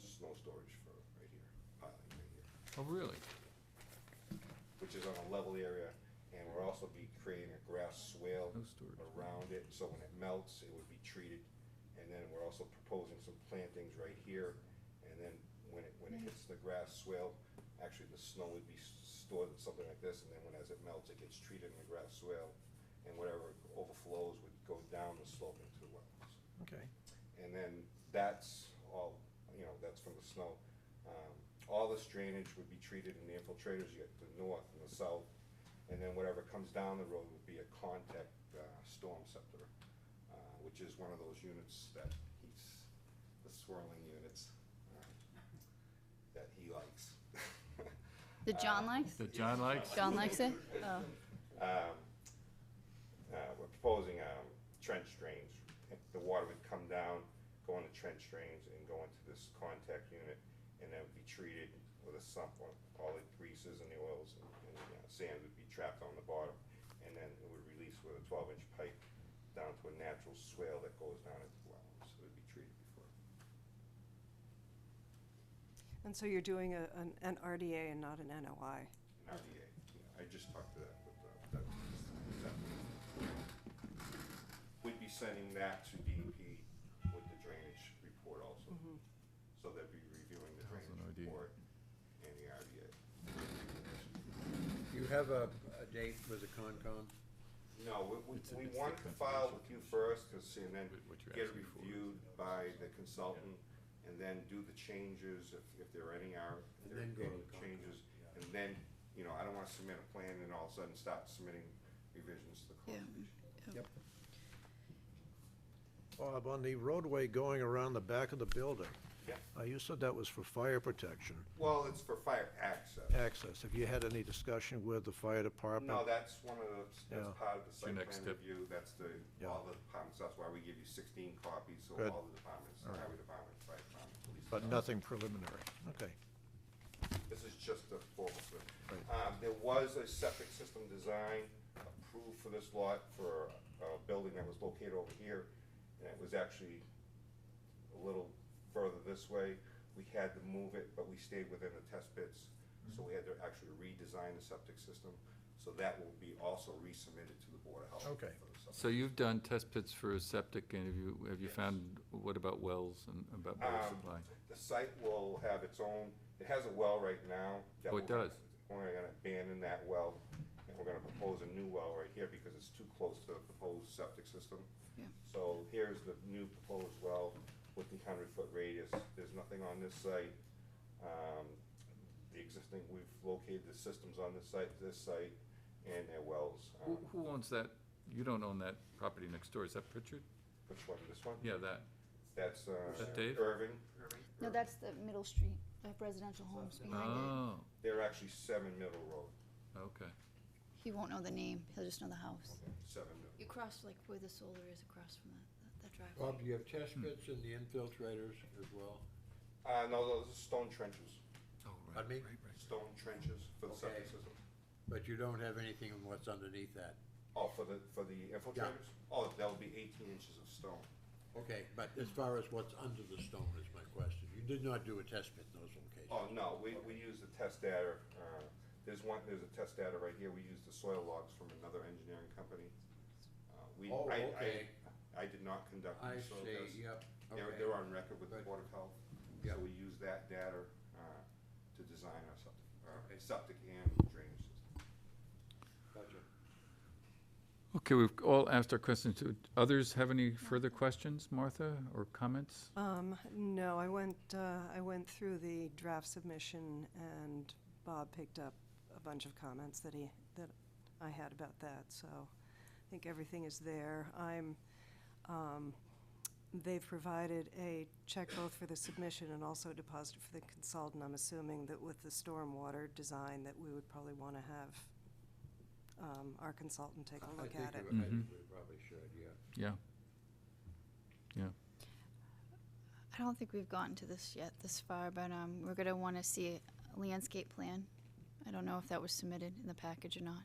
storage for right here, piling right here, Oh, really? which is on a level area. And we'll also be creating a grass swale No storage. around it, so when it melts, it would be treated. And then we're also proposing some plantings right here, and then when it, when it hits the grass swale, actually the snow would be s- stored in something like this, and then when, as it melts, it gets treated in the grass swale, and whatever overflows would go down the slope into the wetlands. Okay. And then that's all, you know, that's from the snow. Um, All this drainage would be treated in the infiltrators, you get the north and the south, and then whatever comes down the road would be a contact uh, storm scepter, uh, which is one of those units that he's, the swirling units uh, that he likes. That John likes? That John likes? John likes it? Oh, um, uh, we're proposing, um, trench drains. If The water would come down, go into trench drains and go into this contact unit and then be treated with a sump, where all the greases and the oils and, and uh, sand would be trapped on the bottom. And then it would release with a twelve inch pipe down to a natural swale that goes down into the well, so it'd be treated before. And so you're doing a, an, an RDA and not an NOI? An RDA, yeah, I just talked to that, with, uh, that, that. We'd be sending that to DEP with the drainage report also. Mm-hmm. So they'd be reviewing the How's an drainage RDA? report and the RDA. You have a, a date with the Concom? No, we- we, It's a- we it's the wanted to file with you first, cause, see, and then What- what you're get it asking for is- reviewed by the consultant, and then do the changes, if, if there are any are, if And there are then go to any the Concom, changes. yeah. And then, you know, I don't wanna submit a plan and all of a sudden start submitting revisions to the Yeah. conservation. Bob, on the roadway going around the back of the building, Yeah, uh, you said that was for fire protection well, it's for fire uh, access. access. Have you had any discussion with the fire department? No, that's one of the, Yeah. that's part of the your site next plan step. review, that's the, Yeah. all the departments, that's why we give you sixteen copies, so Good. all the departments, the highway department, fire department, police. But department. nothing preliminary, okay. This is just a formal survey. Right. Um, there was a septic system design approved for this lot for a building that was located over here, and it was actually a little further this way. We had to move it, but we stayed within the test pits, so we had to actually redesign the septic system. So that will be also resubmitted to the Board of Health. Okay. for the septic. So you've done test pits for septic, and have you, have you Yes. found, what about wells and about water Um, supply? The site will have its own, it has a well right now. that Oh, it we're- does. We're gonna abandon that well, and we're gonna propose a new well right here because it's too close to the proposed septic system. Yeah. So here's the new proposed well with the hundred-foot radius. There's nothing on this site. Um, The existing, we've located the systems on this site, this site, and their wells. Who, Um, who owns that? You don't own that property next door, is that Pritchard? Which one, this one? Yeah, that. That's uh, Is that Dave? Irving. no, that's the Middle Street, the residential homes behind it. Oh, They're actually Seven Middle Road, okay. He won't know the name, he'll just know the house. Seven Middle. You cross like where the solar is across from that, that driveway. Bob, do you have test pits in the infiltrators as well? Uh, no, those are stone trenches, Oh, right, Pardon me? right, right. stone trenches for the septic Okay. system. But you don't have anything on what's underneath that? Oh, for the, for the infiltrators? Oh, that'll be eighteen inches of stone. Okay, but as far as what's under the stone is my question. You did not do a test pit in those locations? Oh, no, we, we use the test data, uh, there's one, there's a test data right here, we use the soil logs from another engineering company. Uh, We, Oh, I, okay. I, I did not conduct I the soil tests. see, yep, They're, okay. they're on record with the Good. Board of Health, so Yep. we use that data, uh, to design our septic, uh, Okay. septic and drainage system. Gotcha. Okay, we've all asked our questions. Do others have any further questions, Martha, or comments? Um, no, I went, uh, I went through the draft submission and Bob picked up a bunch of comments that he, that I had about that, so I think everything is there. I'm, um, they've provided a check both for the submission and also a deposit for the consultant. I'm assuming that with the stormwater design that we would probably wanna have, um, our consultant take a I look think at it. we- I think we probably Mm-hmm. should, yeah. Yeah. Yeah. I don't think we've gotten to this yet, this far, but, um, we're gonna wanna see a landscape plan. I don't know if that was submitted in the package or not.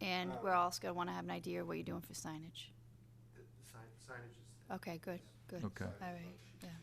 And we're also gonna wanna have an idea what you're doing for signage. The the sign- signage is Okay, good, good. Okay. All right, yeah.